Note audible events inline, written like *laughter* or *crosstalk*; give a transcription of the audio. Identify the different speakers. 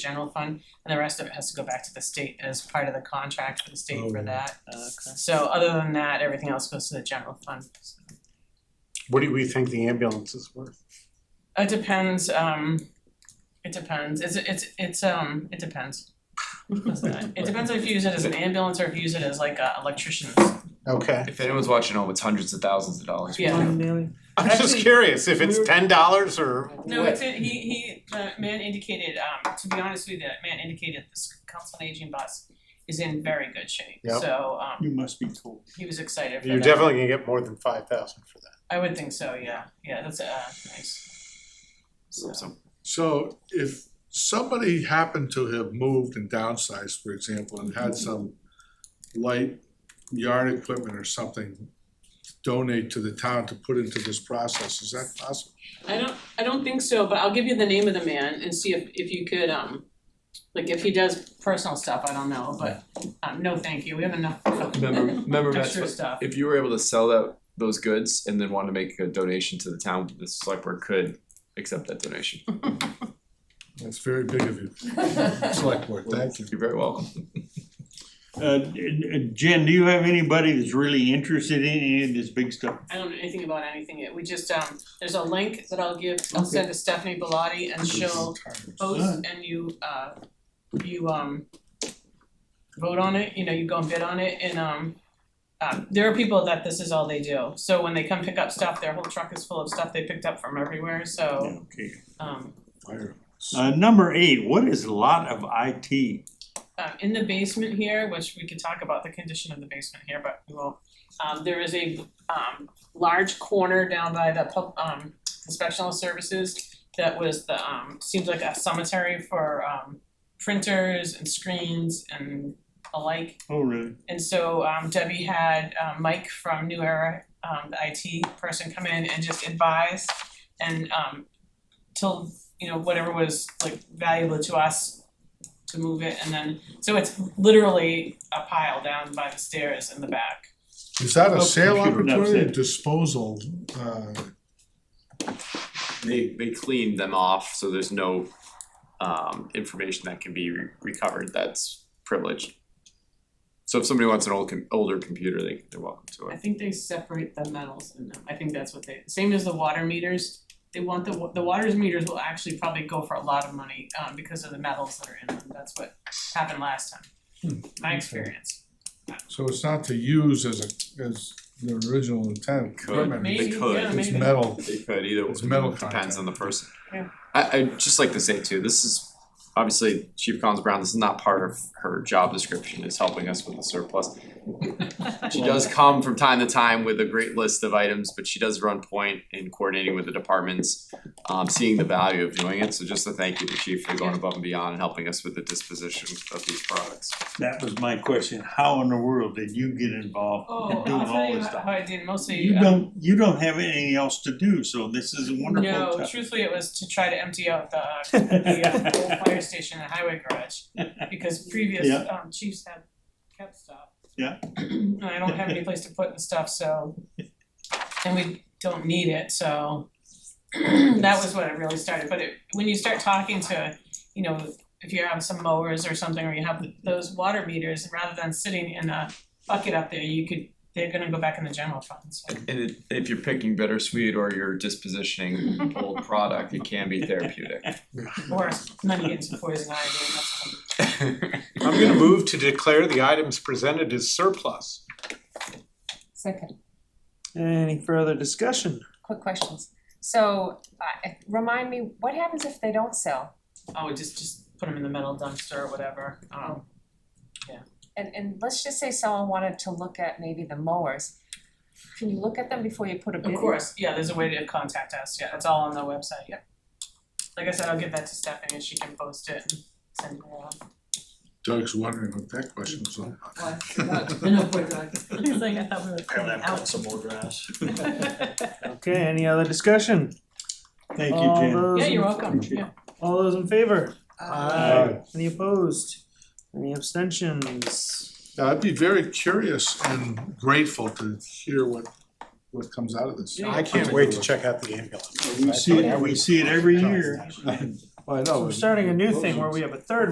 Speaker 1: general fund, and the rest of it has to go back to the state as part of the contract for the state for
Speaker 2: Oh.
Speaker 1: that.
Speaker 3: Okay.
Speaker 1: So other than that, everything else goes to the general fund.
Speaker 2: What do we think the ambulance is worth?
Speaker 1: It depends, um, it depends, it's, it's, it's, um, it depends. It depends if you use it as an ambulance or if you use it as like a electrician's.
Speaker 2: Okay,
Speaker 4: If anyone's watching home, it's hundreds of thousands of dollars.
Speaker 1: Yeah.
Speaker 3: One million.
Speaker 2: I'm just
Speaker 3: Actually,
Speaker 2: curious if it's
Speaker 3: we were-
Speaker 2: ten dollars or
Speaker 1: No,
Speaker 2: what?
Speaker 1: it's, a- he, he, the man indicated, um, to be honest with you, that man indicated this council on aging bus is in very good shape,
Speaker 2: Yep.
Speaker 1: so, um,
Speaker 5: You must be told.
Speaker 1: he was excited for that.
Speaker 2: You're definitely gonna get more than five thousand for that.
Speaker 1: I would think so, yeah, yeah, that's, uh, nice. So,
Speaker 4: So
Speaker 5: So if somebody happened to have moved and downsized, for example, and had some light yard equipment or something donate to the town to put into this process, is that possible?
Speaker 1: I don't, I don't think so, but I'll give you the name of the man and see if, if you could, um, like, if he does personal stuff, I don't know, but, um, no, thank you, we have enough
Speaker 4: remember, remember
Speaker 1: *laughs*
Speaker 4: Matt's
Speaker 1: extra stuff.
Speaker 4: if you were able to sell that those goods and then wanted to make a donation to the town, the select board could accept that donation.
Speaker 5: That's very big of you, select board, thank you.
Speaker 4: You're very welcome.
Speaker 6: Uh, Jen, do you have anybody that's really interested in any of this big stuff?
Speaker 1: I don't know anything about anything yet, we just, um, there's a link that I'll give, I'll send to Stephanie Bellotti and she'll post and you, uh, you, um, vote on it, you know, you go and bid on it and, um, um, there are people that this is all they do, so when they come pick up stuff, their whole truck is full of stuff they picked up from everywhere, so,
Speaker 6: Okay.
Speaker 1: um,
Speaker 5: Fire.
Speaker 6: Uh, number eight, what is lot of IT?
Speaker 1: um in the basement here, which we could talk about the condition of the basement here, but we won't. Um there is a um large corner down by the pub um inspectional services that was the um seems like a cemetery for um printers and screens and alike.
Speaker 6: Oh, really?
Speaker 1: And so um Debbie had um Mike from New Era, um the IT person come in and just advise and um till, you know, whatever was like valuable to us to move it and then, so it's literally a pile down by the stairs in the back.
Speaker 5: Is that a
Speaker 6: Oh,
Speaker 5: sale
Speaker 6: computer, that's
Speaker 5: opportunity or
Speaker 6: it.
Speaker 5: disposal, uh,
Speaker 4: They they cleaned them off, so there's no um information that can be re- recovered that's privileged. So if somebody wants an old com- older computer, they they're welcome to
Speaker 1: I
Speaker 4: it.
Speaker 1: think they separate the metals in them, I think that's what they, same as the water meters. They want the, wa- the water's meters will actually probably go for a lot of money, um, because of the metals that are in them, that's what happened last time. My experience,
Speaker 5: so it's not to use as a, as the original intent,
Speaker 4: Could.
Speaker 5: equipment,
Speaker 1: maybe, yeah,
Speaker 4: could.
Speaker 1: maybe.
Speaker 5: it's metal.
Speaker 4: They could either
Speaker 5: It's metal
Speaker 4: depends on the person.
Speaker 1: Yeah.
Speaker 4: I I'd just like to say too, this is obviously Chief Collins Brown, this is not part of her job description, is helping us with the surplus. She does come from time to time with a great list of items, but she does run point in coordinating with the departments, um seeing the value of doing it, so just a thank you to Chief for going above and beyond and helping us with the disposition of these products.
Speaker 6: That was my question. How in the world did you get involved
Speaker 1: Oh,
Speaker 6: in doing
Speaker 1: I'll tell
Speaker 6: all
Speaker 1: you
Speaker 6: this
Speaker 1: how
Speaker 6: stuff?
Speaker 1: I did mostly.
Speaker 6: You
Speaker 1: um,
Speaker 6: don't, you don't have anything else to do, so this is a wonderful
Speaker 1: No,
Speaker 6: time.
Speaker 1: truthfully, it was to try to empty out the,
Speaker 6: *laughs*
Speaker 1: uh, the uh, old fire station and highway garage, because previous,
Speaker 6: Yeah.
Speaker 1: um, chiefs had kept stuff.
Speaker 6: Yeah.
Speaker 1: *clears throat* And I don't have any place to put the stuff, so, and we don't need it, so *clears throat* that was what it really started, but it, when you start talking to, you know, if you have some mowers or something, or you have those water meters, rather than sitting in a bucket up there, you could, they're gonna go back in the general fund, so.
Speaker 4: And it, if you're picking bittersweet or you're dispositioning old product, it can be therapeutic. *laughs*
Speaker 1: Or money gets poison ivy, and that's something.
Speaker 2: I'm gonna move to declare the items presented as surplus.
Speaker 7: Second,
Speaker 3: Any further discussion?
Speaker 7: quick questions. So, uh, remind me, what happens if they don't sell?
Speaker 1: Oh, just just put them in the metal dumpster or whatever, um,
Speaker 7: And, and let's just say someone wanted to look at maybe the mowers. Can you look at them before you put a bid
Speaker 1: of
Speaker 7: in?
Speaker 1: course, yeah, there's a way to contact us, yeah, it's all on the website, yeah. Like I said, I'll give that to Stephanie and she can post it and send it around.
Speaker 5: Doug's wondering what that question was all about.
Speaker 1: *laughs* He's like, I thought we were
Speaker 3: some more grass. Okay, any other discussion?
Speaker 6: Thank you,
Speaker 3: All
Speaker 6: Jen.
Speaker 3: those,
Speaker 1: *laughs* Yeah, you're
Speaker 3: in-
Speaker 1: welcome, yeah.
Speaker 3: all those in favor?
Speaker 2: Aye.
Speaker 3: Any opposed? Any abstentions?
Speaker 5: Now, Uh, I'd be very curious and grateful to hear what, what comes out of this.
Speaker 1: Yeah.
Speaker 2: I can't wait to check out the ambulance.
Speaker 6: We see, it- we see it every year.
Speaker 5: Well, *laughs* I know.
Speaker 3: So we're starting a new thing where we have a third